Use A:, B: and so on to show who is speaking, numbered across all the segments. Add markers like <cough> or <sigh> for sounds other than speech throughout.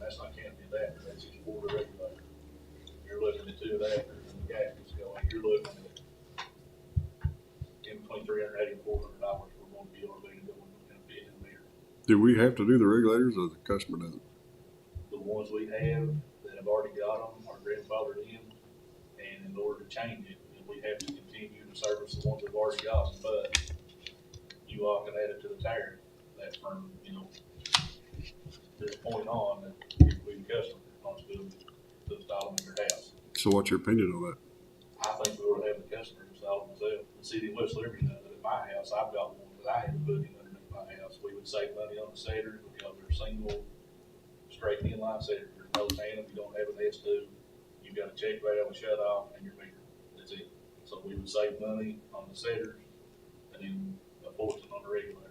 A: that's not counting the acre, that's just water regulated. You're looking at two acres and the gas is going, you're looking at in between three hundred eighty and four hundred dollars for one bill or maybe going to bid in there.
B: Do we have to do the regulators or the customer doesn't?
A: The ones we have that have already got them are grandfathered in, and in order to change it, then we have to continue to service the ones we've already got, but you all can add it to the tariff, that from, you know, this point on, that if we customer responsibility to install them in your house.
B: So what's your opinion on that?
A: I think we ought to have the customer install them themselves. uh, The city of West Liberty uh, does it at my house. I've got one that I had to put in underneath my house. We would save money on the cedar because they're single, straight inline cedar. There's no tandem. You don't have an S two. You've got a check valve, a shut off, and your meter. That's it. So we would save money on the cedars and then a portion on the regular.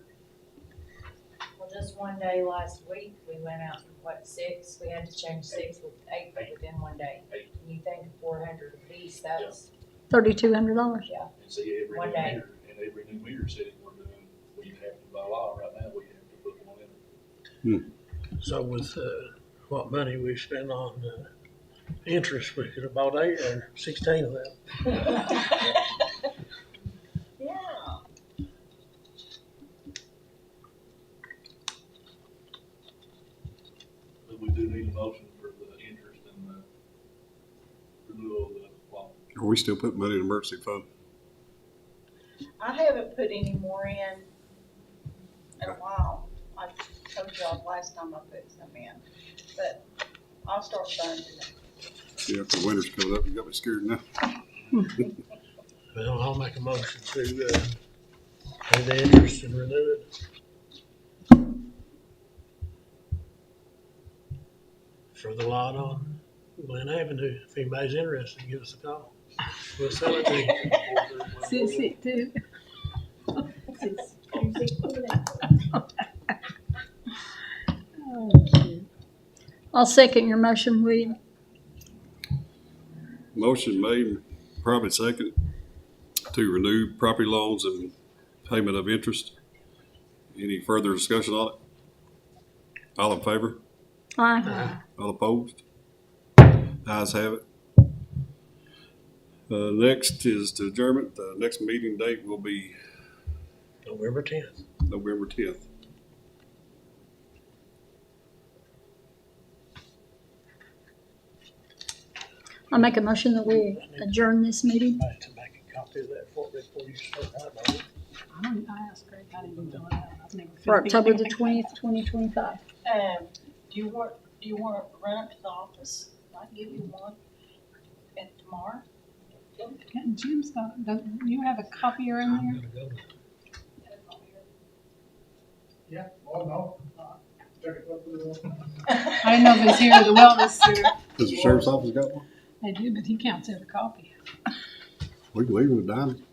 C: Well, just one day last week, we went out from what, six, we had to change six with eight within one day.
A: Eight.
C: And you think four hundred apiece, that's,
D: Thirty-two hundred dollars.
A: And see, every new
C: One day.
A: meter, and every new meter city we're doing, we have to, by law, right now, we have to put one in.
E: So with, uh, what money we spend on, uh, interest, we could have bought eight or sixteen of them.
C: yeah.
A: But we do need a motion for the interest and the renewal of the law.
B: Are we still putting money in emergency fund?
F: I haven't put any more in in a while. I told y'all last time I put some in, but I'll start funding it.
B: Yeah, if the winter's coming up, you got me scared now.
E: Well, I'll make a motion to, uh, pay the interest and renew it. For the lot on Glen Avenue, if anybody's interested, give us a call. We'll sell it to you.
D: Sixty-two. <laughs> I'll second your motion, William.
B: Motion made, probably second, to renew property loans and payment of interest. Any further discussion on it? All in favor?
D: Aye.
B: All opposed? Ayes have it. Uh, next is to adjournment. The next meeting date will be
E: November tenth.
B: November tenth.
D: I make a motion that we adjourn this meeting.
E: Somebody to make a copy of that for, before you start. I don't know.
G: I don't- I asked Greg, I didn't know that. I've never
D: For October the twentieth, twenty twenty-five.
F: Um, do you want, do you want to run up to the office? I can give you one and tomorrow.
G: And Jim's got, don't you have a copier in
E: I'm
G: there?
E: gonna go to
H: Yeah, oh, no. Check it out for the-
G: I didn't know if it was here or the wellness center.
B: Does the sheriff's office got one?
G: They do, but he counts every copy.
B: We can leave it at dime.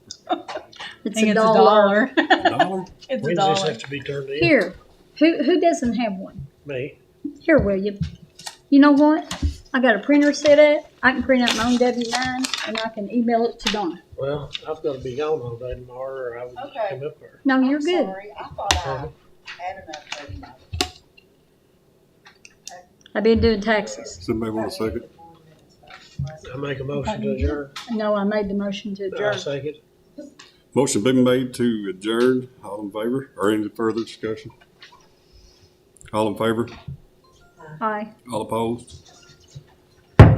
D: It's a dollar.
B: A dollar?
G: It's
E: When does this have to be turned in?
D: Here, who, who doesn't have one?
E: Me.
D: Here, William. You know what? I got a printer set up. I can print out my own W nine and I can email it to Donna.
E: Well, I've gotta be gone all day tomorrow, or I would
F: Okay.
E: come up there.
D: No,
F: I'm
D: you're good.
F: Sorry, I thought I
E: Uh-huh.
F: had enough for you.
D: I've been doing taxes.
B: Somebody want a second?
E: I make a motion to adjourn.
D: No, I made the motion to
E: I
D: adjourn.
E: second.
B: Motion been made to adjourn. All in favor? Or any further discussion? All in favor?
D: Aye.
B: All opposed?